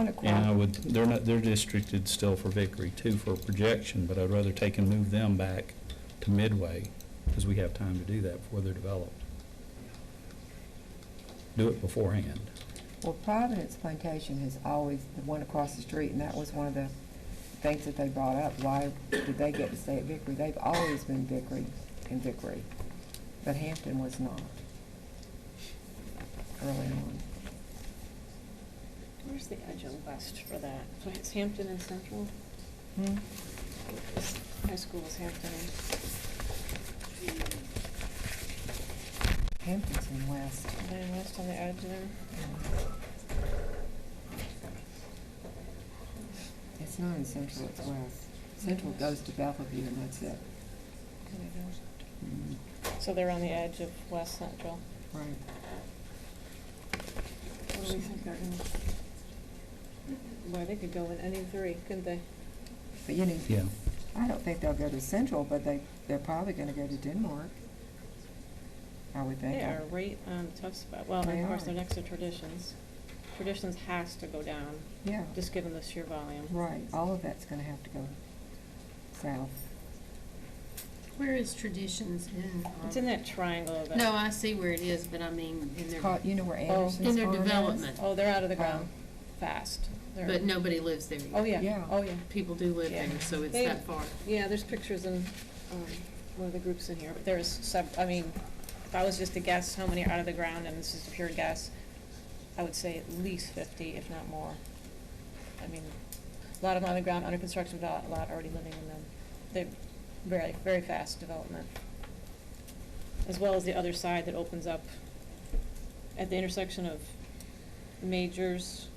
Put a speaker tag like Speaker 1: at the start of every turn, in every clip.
Speaker 1: And I
Speaker 2: Tahonacqua.
Speaker 1: would, they're not, they're districted still for Vickery too for projection, but I'd rather take and move them back to Midway, because we have time to do that before they're developed. Do it beforehand.
Speaker 2: Well, Providence Plantation has always, the one across the street, and that was one of the things that they brought up. Why did they get to stay at Vickery? They've always been Vickery and Vickery, but Hampton was not early on.
Speaker 3: Where's the adjunct list for that? So It's Hampton and Central?
Speaker 2: Hmm?
Speaker 3: High school is Hampton
Speaker 2: Hampton's in West.
Speaker 3: and, then west on the edge there?
Speaker 2: It's not in Central, it's West. Central goes to Bellevue and that's it. Mm-hmm.
Speaker 3: So they're on the edge of West Central.
Speaker 2: Right.
Speaker 3: What do Oh, we think they're in? Boy, they could go in any three, couldn't they?
Speaker 2: But you know,
Speaker 1: Yeah.
Speaker 2: I don't think they'll go to Central, but they, they're probably gonna go to Denmark. I would think.
Speaker 3: They are right on the tough spot. Well, and
Speaker 2: They
Speaker 3: of course, they're
Speaker 2: are.
Speaker 3: next to Traditions. Traditions has to go down,
Speaker 2: Yeah,
Speaker 3: just given the sheer volume.
Speaker 2: right. All of that's gonna have to go south.
Speaker 4: Where is Traditions in? um,
Speaker 3: It's in that triangle of it.
Speaker 4: No, I see where it is, but I mean, in
Speaker 2: It's
Speaker 4: their,
Speaker 2: called, you know where Anderson's
Speaker 4: Oh, in their
Speaker 2: farm is?
Speaker 4: development,
Speaker 3: Oh, they're out of the
Speaker 2: Oh.
Speaker 3: ground, fast. They're-
Speaker 4: but nobody lives there
Speaker 3: Oh,
Speaker 4: yet.
Speaker 3: yeah,
Speaker 2: Yeah.
Speaker 3: oh, yeah.
Speaker 4: People do live
Speaker 3: Yeah.
Speaker 4: there, so it's
Speaker 3: They-
Speaker 4: that far.
Speaker 3: Yeah, there's pictures in, um, one of the groups in here, but there's sub, I mean, if I was just to guess how many are out of the ground, and this is a pure guess, I would say at least fifty, if not more. I mean, a lot of them on the ground, under construction, but a lot already living in them. They're very, very fast development. As well as the other side that opens up at the intersection of Majors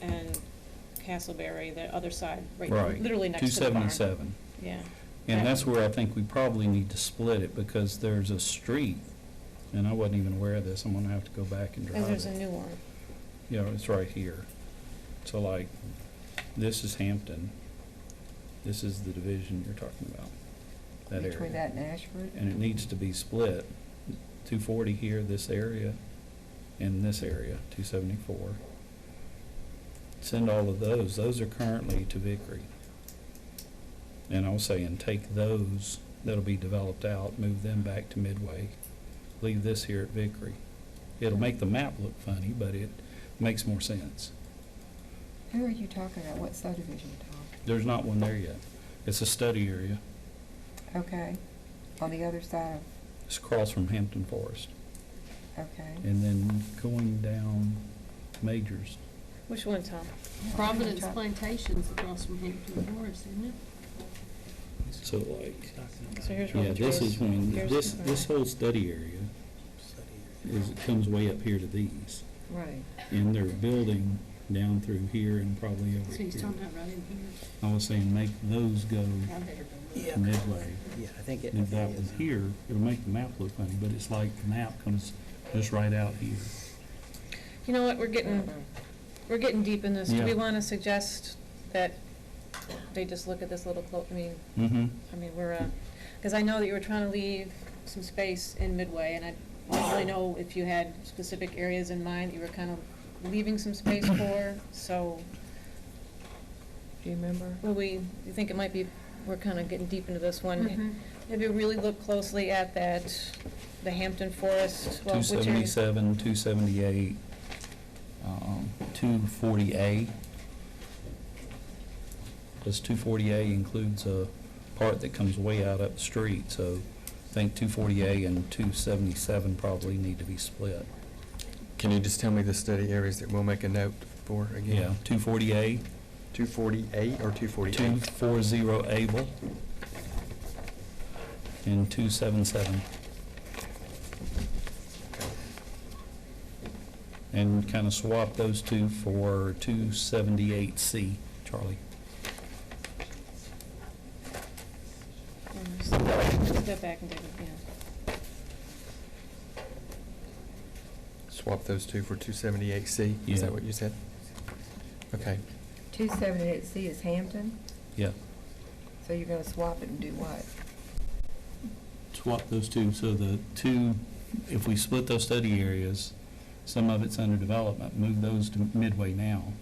Speaker 3: and Castleberry, the other side, right,
Speaker 1: Right.
Speaker 3: literally next to the barn.
Speaker 1: Two seventy-seven.
Speaker 3: Yeah.
Speaker 1: And that's where I think we probably need to split it, because there's a street, and I wasn't even aware of this, I'm gonna have to go back and drive
Speaker 3: Because
Speaker 1: it.
Speaker 3: there's a new one.
Speaker 1: Yeah, it's right here. So like, this is Hampton. This is the division you're talking about, that area.
Speaker 2: Between that and Ashford?
Speaker 1: And it needs to be split, two forty here, this area, and this area, two seventy-four. Send all of those, those are currently to Vickery. And I was saying, take those that'll be developed out, move them back to Midway, leave this here at Vickery. It'll make the map look funny, but it makes more sense.
Speaker 2: Who are you talking about? What subdivision, Tom?
Speaker 1: There's not one there yet. It's a study area.
Speaker 2: Okay, on the other side
Speaker 1: It's across from Hampton Forest.
Speaker 2: of, okay.
Speaker 1: And then going down Majors,
Speaker 3: Which one, Tom?
Speaker 4: Providence Plantation's across from Hampton Forest, isn't
Speaker 1: so like,
Speaker 3: So here's one.
Speaker 1: Yeah, this
Speaker 3: Here's-
Speaker 1: is when,
Speaker 3: here's
Speaker 1: this,
Speaker 3: the-
Speaker 1: this whole study area is, it comes way up here to these.
Speaker 2: Right.
Speaker 1: And they're building down through here and probably
Speaker 4: it?
Speaker 1: over
Speaker 4: So he's
Speaker 1: here.
Speaker 4: talking about right in here.
Speaker 1: I was saying, make those go
Speaker 5: Yeah.
Speaker 1: midway.
Speaker 5: Yeah, I think it.
Speaker 1: And if that was here, it'll make the map look funny, but it's like the map comes just right out here.
Speaker 3: You know what, we're
Speaker 4: Mm.
Speaker 3: getting, we're getting deep in this. Do we
Speaker 1: Yeah.
Speaker 3: want to suggest that they just look at this little, clo- I mean,
Speaker 1: Mm-hmm.
Speaker 3: I mean, we're, because I know that you were trying to leave some space in Midway, and I didn't really know if you had specific areas in mind that you were kind of leaving some space for, so,
Speaker 2: Do you remember?
Speaker 3: will we, you think it might be, we're kind of getting deep into this one.
Speaker 2: Mm-hmm.
Speaker 4: Mhm.
Speaker 3: Maybe really look closely at that, the Hampton Forest, well,
Speaker 1: Two
Speaker 3: which area?
Speaker 1: seventy-seven, two seventy-eight, um, two forty A. Does two forty A includes a part that comes way out up the street, so I think two forty A and two seventy-seven probably need to be split.
Speaker 6: Can you just tell me the study areas that we'll make a note for again?
Speaker 1: Yeah, two forty A,
Speaker 6: Two forty-eight or two
Speaker 1: two
Speaker 6: forty-eight?
Speaker 1: four zero Able, and two seven seven. And kind of swap those two for two seventy-eight C, Charlie.
Speaker 3: Step Mm, back and take it,
Speaker 6: Swap those two for two seventy-eight C? Is
Speaker 1: Yeah.
Speaker 6: that what you said? Okay.
Speaker 2: Two seventy-eight C is Hampton,
Speaker 1: Yeah,
Speaker 2: so you're gonna swap it and do what?
Speaker 1: swap those two, so the two, if we split those study areas, some of it's under development, move those to Midway now,